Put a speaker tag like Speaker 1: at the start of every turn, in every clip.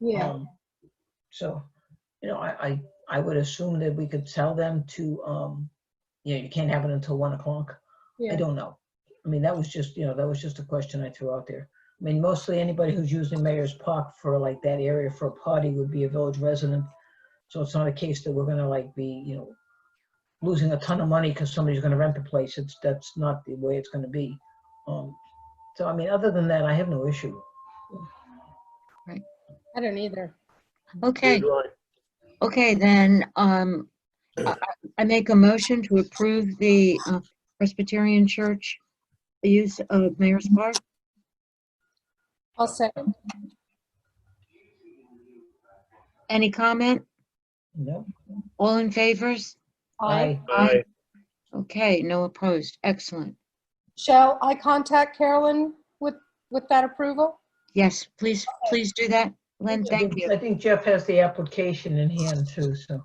Speaker 1: Yeah,
Speaker 2: Um, So, you know, I, I, I would assume that we could tell them to, um, you know, you can't have it until one o'clock. I
Speaker 1: yeah,
Speaker 2: don't know. I mean, that was just, you know, that was just a question I threw out there. I mean, mostly anybody who's using Mayor's Park for like that area for a party would be a village resident. So it's not a case that we're gonna like be, you know, losing a ton of money because somebody's gonna rent the place. It's, that's not the way it's gonna be. Um, So I mean, other than that, I have no issue.
Speaker 1: I don't either.
Speaker 3: Okay,
Speaker 4: do I.
Speaker 3: okay, then, um, I I make a motion to approve the uh, Presbyterian Church use of Mayor's Park.
Speaker 1: I'll second.
Speaker 3: Any comment?
Speaker 2: No?
Speaker 3: All in favors?
Speaker 1: I,
Speaker 4: Aye.
Speaker 3: Okay, no opposed. Excellent.
Speaker 1: shall I contact Carolyn with, with that approval?
Speaker 3: Yes, please, please do that. Lynn,
Speaker 2: I
Speaker 3: thank
Speaker 2: think-
Speaker 3: you.
Speaker 2: I think Jeff has the application in hand too, so.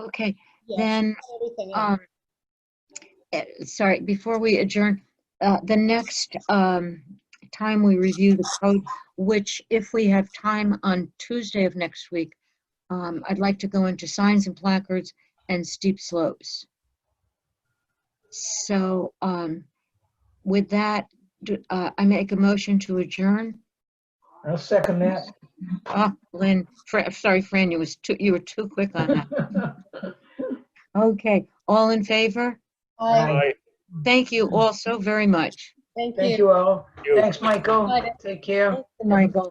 Speaker 3: Okay,
Speaker 1: Yes,
Speaker 3: then,
Speaker 1: Everything in.
Speaker 3: um, eh, sorry, before we adjourn, uh, the next, um, time we review the code, which if we have time on Tuesday of next week, um, I'd like to go into signs and placards and steep slopes. So, um, with that, do- uh, I make a motion to adjourn.
Speaker 2: I'll second that.
Speaker 3: Ah, Lynn, Fran, sorry, Fran, you was too, you were too quick on that. Okay, all in favor?
Speaker 1: Aye,
Speaker 4: Aye.
Speaker 3: Thank you all so very much.
Speaker 1: thank
Speaker 2: Thank
Speaker 1: you.
Speaker 2: you all.
Speaker 4: You.
Speaker 2: Thanks, Michael.
Speaker 1: Bye.
Speaker 2: Take care.
Speaker 3: Michael.